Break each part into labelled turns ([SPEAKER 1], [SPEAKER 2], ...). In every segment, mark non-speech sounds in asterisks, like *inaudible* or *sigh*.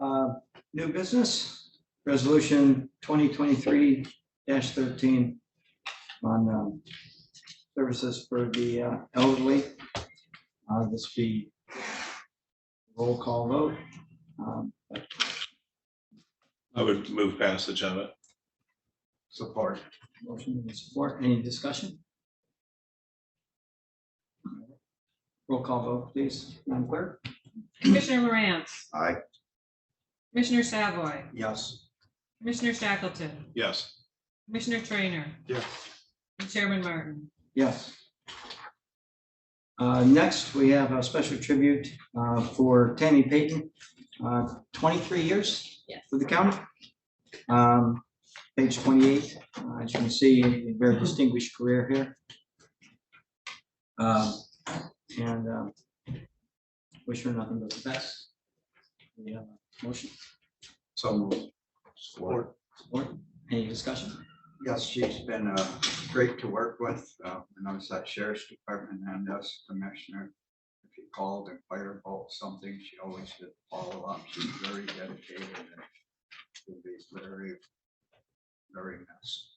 [SPEAKER 1] Uh, New business, resolution twenty twenty-three thirteen on um, services for the uh, elderly. Uh, This be roll call vote. Um,
[SPEAKER 2] I would move passage of it.
[SPEAKER 3] Support.
[SPEAKER 1] Motion and support, any discussion? Roll call vote, please, Madam Clerk.
[SPEAKER 4] Commissioner Morant.
[SPEAKER 3] Aye.
[SPEAKER 4] Commissioner Savoy.
[SPEAKER 3] Yes.
[SPEAKER 4] Commissioner Shackleton.
[SPEAKER 2] Yes,
[SPEAKER 4] Commissioner Trainer.
[SPEAKER 3] Yes.
[SPEAKER 4] And Chairman Martin.
[SPEAKER 1] Yes. Uh, Next, we have a special tribute uh, for Tammy Payton, uh, 23 years
[SPEAKER 4] Yes.
[SPEAKER 1] with the county. Um, Page 28, uh, as you can see, a very distinguished career here. Um, And um, wish her nothing but the best. We have a motion,
[SPEAKER 3] So moved. Support.
[SPEAKER 1] support, any discussion?
[SPEAKER 3] Yes, she's been uh, great to work with. uh, When I was at Sheriff's Department and as Commissioner, if you called and fired about something, she always did follow up. She's very dedicated and will be very, very missed.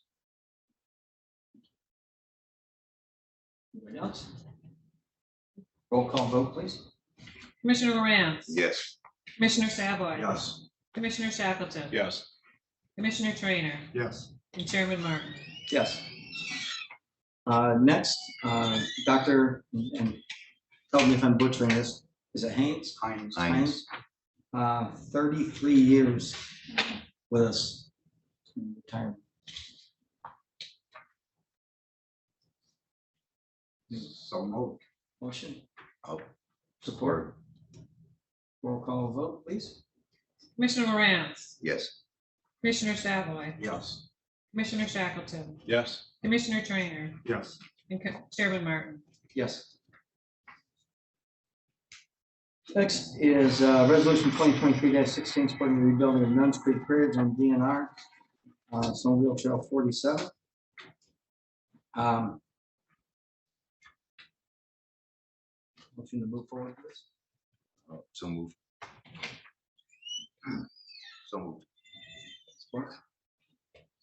[SPEAKER 1] Anybody else? Roll call vote, please.
[SPEAKER 4] Commissioner Morant.
[SPEAKER 3] Yes.
[SPEAKER 4] Commissioner Savoy.
[SPEAKER 3] Yes.
[SPEAKER 4] Commissioner Shackleton.
[SPEAKER 2] yes,
[SPEAKER 4] Commissioner Trainer.
[SPEAKER 3] Yes.
[SPEAKER 4] And Chairman Martin.
[SPEAKER 1] Yes. Uh, Next, uh, Dr., and tell me if I'm butchering this, is it Haynes?
[SPEAKER 3] Heinz.
[SPEAKER 1] Haynes? Uh, 33 years with us in retirement.
[SPEAKER 3] So moved.
[SPEAKER 1] Motion?
[SPEAKER 3] Oh.
[SPEAKER 1] Support? Roll call vote, please?
[SPEAKER 4] Commissioner Morant.
[SPEAKER 3] Yes.
[SPEAKER 4] Commissioner Savoy.
[SPEAKER 3] Yes.
[SPEAKER 4] Commissioner Shackleton.
[SPEAKER 2] yes,
[SPEAKER 4] Commissioner Trainer.
[SPEAKER 3] Yes.
[SPEAKER 4] And Co- Chairman Martin.
[SPEAKER 1] Yes. Next is uh, Resolution 2023-16, supporting the rebuilding of Nuns Creek Bridge on DNR, uh, Snowmobile Trail 47. Um, Motion to move forward, please.
[SPEAKER 3] So moved. So moved.
[SPEAKER 1] Support.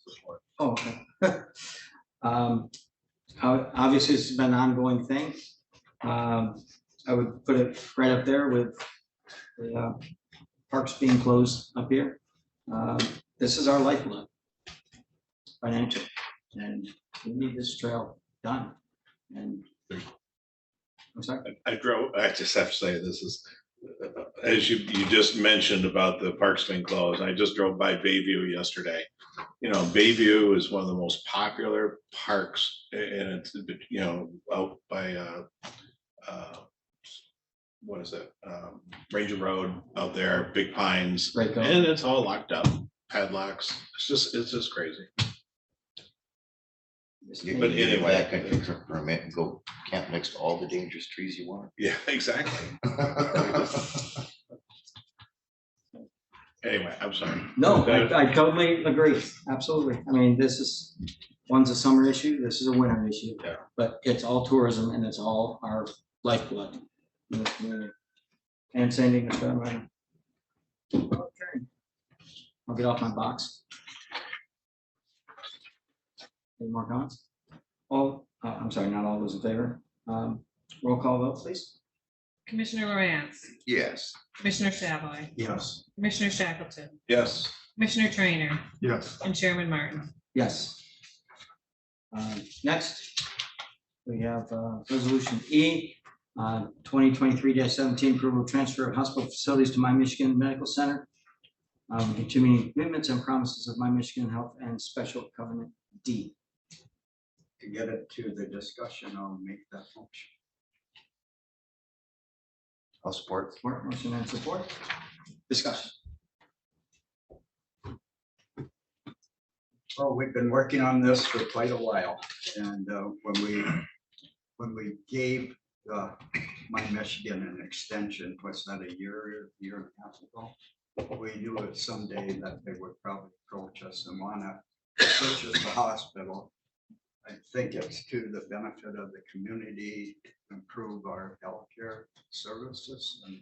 [SPEAKER 3] Support.
[SPEAKER 1] Oh, okay. *laughs* Um, ob- Obviously, this has been an ongoing thing. Um, I would put it right up there with the uh, parks being closed up here. Um, This is our lifeline. Financial, and we need this trail done. And I'm sorry,
[SPEAKER 2] I- I drove, I just have to say, this is, uh, as you, you just mentioned about the parks being closed, I just drove by Bayview yesterday. You know, Bayview is one of the most popular parks, a- and it's, you know, out by, uh, uh, what is it, um, Ranger Road out there, Big Pines,
[SPEAKER 1] right, go.
[SPEAKER 2] and it's all locked up, padlocks, it's just, it's just crazy.
[SPEAKER 5] You
[SPEAKER 2] But
[SPEAKER 5] can get a
[SPEAKER 2] anyway.
[SPEAKER 5] backcountry tr- permit and go camp next to all the dangerous trees you want.
[SPEAKER 2] Yeah, *laughs* exactly. Anyway, I'm sorry.
[SPEAKER 1] No, I I totally agree, absolutely. I mean, this is, one's a summer issue, this is a winter issue.
[SPEAKER 2] Yeah.
[SPEAKER 1] But it's all tourism and it's all our lifeblood in this community. And sending this down right. Okay. I'll get off my box. Any more comments? All, uh, I'm sorry, not all those in favor. Um, Roll call vote, please.
[SPEAKER 4] Commissioner Morant.
[SPEAKER 5] *laughs* Yes.
[SPEAKER 4] Commissioner Savoy.
[SPEAKER 3] Yes.
[SPEAKER 4] Commissioner Shackleton.
[SPEAKER 2] Yes,
[SPEAKER 4] Commissioner Trainer.
[SPEAKER 3] Yes.
[SPEAKER 4] And Chairman Martin.
[SPEAKER 1] Yes. Um, Next, we have uh, Resolution E, uh, 2023-17, approval of transfer of hospital facilities to My Michigan Medical Center. um, and To meeting commitments and promises of My Michigan Health and Special Covenant D.
[SPEAKER 3] to get it to the discussion, I'll make that motion.
[SPEAKER 5] I'll support.
[SPEAKER 1] Support, motion and support. Discussion.
[SPEAKER 3] Well, we've been working on this for quite a while, and uh, when we, when we gave uh, my Michigan an extension, was that a year, year and a half ago? We knew it someday that they would probably approach us and wanna purchase the hospital. I think it's to the benefit of the community, improve our healthcare services, and